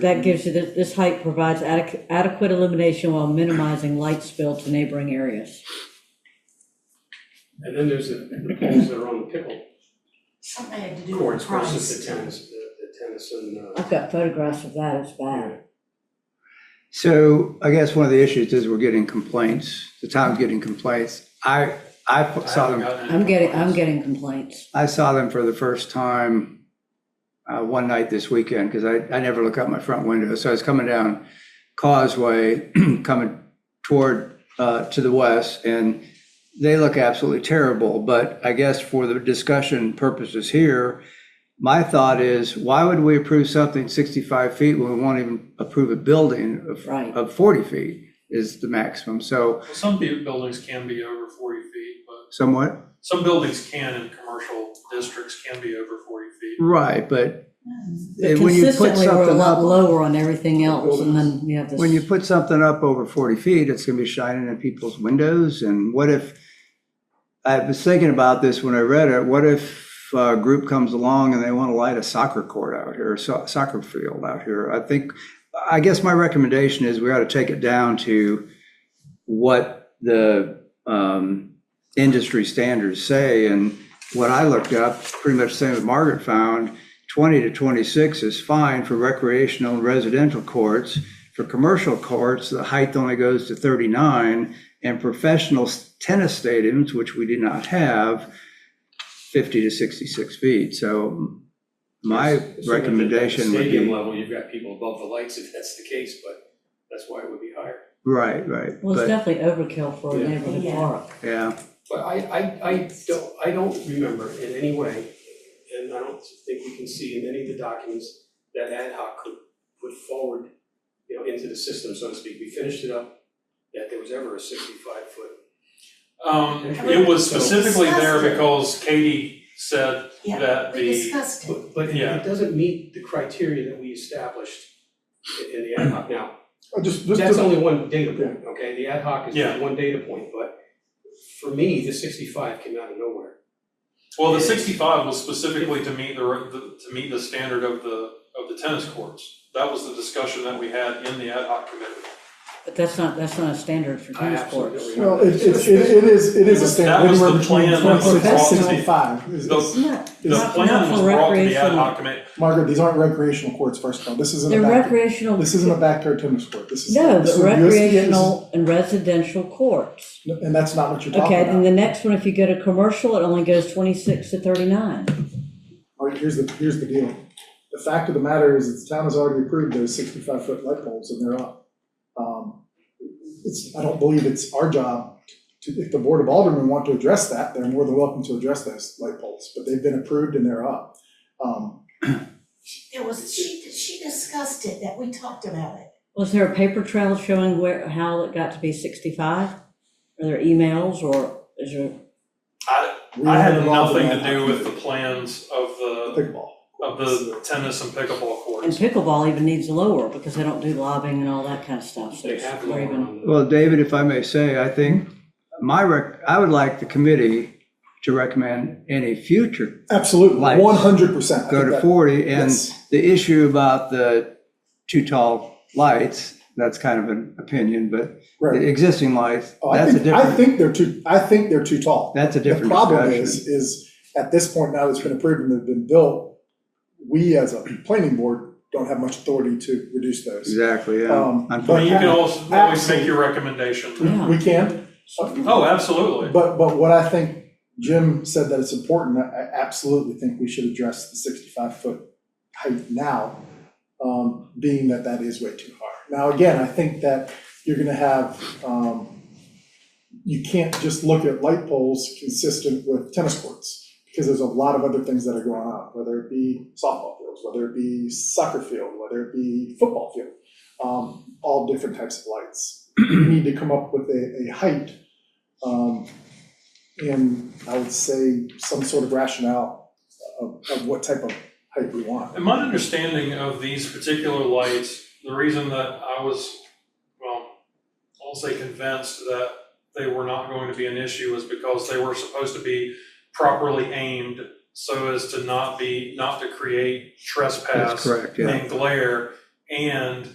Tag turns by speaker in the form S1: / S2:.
S1: That gives you, this, this height provides adequ- adequate illumination while minimizing light spill to neighboring areas.
S2: And then there's the the poles that are on the pickle
S3: Something had to do with
S2: courts
S3: the price.
S2: versus the tennis, the the tennis and, uh,
S1: I've got photographs of that, it's bad.
S4: So I guess one of the issues is we're getting complaints, the town's getting complaints. I, I
S2: I
S4: saw
S2: haven't
S4: them,
S2: gotten any
S1: I'm getting, I'm
S2: complaints.
S1: getting complaints.
S4: I saw them for the first time uh, one night this weekend, because I, I never look out my front window. So I was coming down Causeway, coming toward, uh, to the west, and they look absolutely terrible. But I guess for the discussion purposes here, my thought is, why would we approve something 65 feet when we won't even approve a building of,
S1: Right.
S4: of 40 feet is the maximum? So
S5: Well, Some bu- buildings can be over forty feet, but
S4: somewhat,
S5: some buildings can in commercial districts can be over forty feet.
S4: right, but
S1: But
S4: when you put
S1: Consistently, we're a
S4: something up.
S1: lot lower on everything else, and then you have this.
S4: When you put something up over 40 feet, it's going to be shining in people's windows. And what if, I was thinking about this when I read it, what if a group comes along and they want to light a soccer court out here, so- soccer field out here? I think, I guess my recommendation is we ought to take it down to what the um, industry standards say. And what I looked up, pretty much the same as Margaret found, 20 to 26 is fine for recreational and residential courts. For commercial courts, the height only goes to 39, and professional tennis stadiums, which we do not have, 50 to 66 feet. So my
S2: Assuming that at the
S4: recommendation would
S2: Stadium
S4: be,
S2: level, you've got people above the lights if that's the case, but that's why it would be higher.
S4: right, right.
S1: Well, it's
S4: But,
S1: definitely overkill for a
S2: Yeah.
S1: neighborhood
S3: Yeah.
S1: park.
S4: yeah,
S2: But I, I, I don't, I don't remember in any way, and I don't think we can see in any of the documents that ad hoc could put forward, you know, into the system, so to speak. We finished it up, that there was ever a sixty-five foot.
S5: Um, it was specifically there because Katie said
S3: Yeah,
S5: that
S3: we
S5: the,
S3: discussed it.
S2: But, but it-
S5: Yeah.
S2: it doesn't meet the criteria that we established in, in the ad hoc. Now,
S6: Uh, Just, just,
S2: that's
S6: to-
S2: only one data point, okay? The ad hoc is
S5: Yeah.
S2: one data point, but for me, the sixty-five came out of nowhere.
S5: well, the sixty-five was specifically to meet the, re- the- to meet the standard of the, of the tennis courts. That was the discussion that we had in the ad hoc committee.
S1: But that's not, that's not a standard for
S2: I
S1: tennis
S2: absolutely
S1: courts.
S2: don't
S6: well,
S2: remember.
S6: it, it, it it is, it is a
S5: That
S6: standard,
S5: was the
S6: anywhere between
S5: plan that was
S6: twenty-six and
S5: brought to me.
S6: sixty-five. Is-
S5: The,
S1: No,
S5: the
S1: not- not
S5: plan was
S1: for
S5: brought to the ad
S1: recreational.
S5: hoc committee.
S6: Margaret, these aren't recreational courts, first of all, this isn't
S1: They're
S6: a backyard,
S1: recreational.
S6: this isn't a backyard tennis court, this is.
S1: No, but
S6: this is USDA, this is-
S1: recreational and residential courts.
S6: And that's not what you're talking
S1: Okay,
S6: about.
S1: and the next one, if you go to commercial, it only goes twenty-six to thirty-nine.
S6: All right, here's the, here's the deal. The fact of the matter is, that the town has already approved those sixty-five foot light bulbs and they're up. Um, It's, I don't believe it's our job to, if the Board of Aldermen want to address that, they're more than welcome to address those light bulbs, but they've been approved and they're up. Um,
S3: There was, she, she discussed it, that we talked about it.
S1: Was there a paper trail showing where, how it got to be sixty-five? Are there emails or is there,
S6: we
S5: I
S6: were
S5: had
S6: involved in
S5: nothing to
S6: that.
S5: do with the plans of the,
S6: Pickleball.
S5: of the tennis and pickleball courts.
S1: and pickleball even needs lower because they don't do lobbying and all that kind of stuff, so
S2: They
S1: it's
S2: have
S1: not
S2: lower
S1: even.
S2: on the.
S4: well, David, if I may say, I think my rec, I would like the committee to recommend any future
S6: Absolutely,
S4: Lights.
S6: one hundred percent.
S4: go to 40, and
S6: yes.
S4: the issue about the too tall lights, that's kind of an opinion, but the existing lights,
S6: Oh, I
S4: that's a
S6: think, I
S4: different,
S6: think they're too, I think they're too tall.
S4: that's a different
S6: The problem
S4: discussion.
S6: is, is at this point now that's been approved and they've been built, we as a planning board don't have much authority to reduce those.
S4: Exactly, yeah.
S6: Um,
S5: I
S4: Unfortunately,
S5: mean, you can also always make
S6: Absolutely.
S5: your recommendation.
S1: Yeah.
S6: We can,
S5: Oh, absolutely.
S6: but, but what I think Jim said that it's important, I I absolutely think we should address the sixty-five foot height now, um, being that that is way too high. Now, again, I think that you're gonna have, um, you can't just look at light poles consistent with tennis courts, because there's a lot of other things that are going on, whether it be softball fields, whether it be soccer field, whether it be football field, um, all different types of lights. You need to come up with a, a height, um, and I would say some sort of rationale of, of what type of height we want.
S5: In my understanding of these particular lights, the reason that I was, well, I'll say convinced that they were not going to be an issue was because they were supposed to be properly aimed so as to not be, not to create
S4: that's
S5: trespass
S4: correct, yeah.
S5: and glare and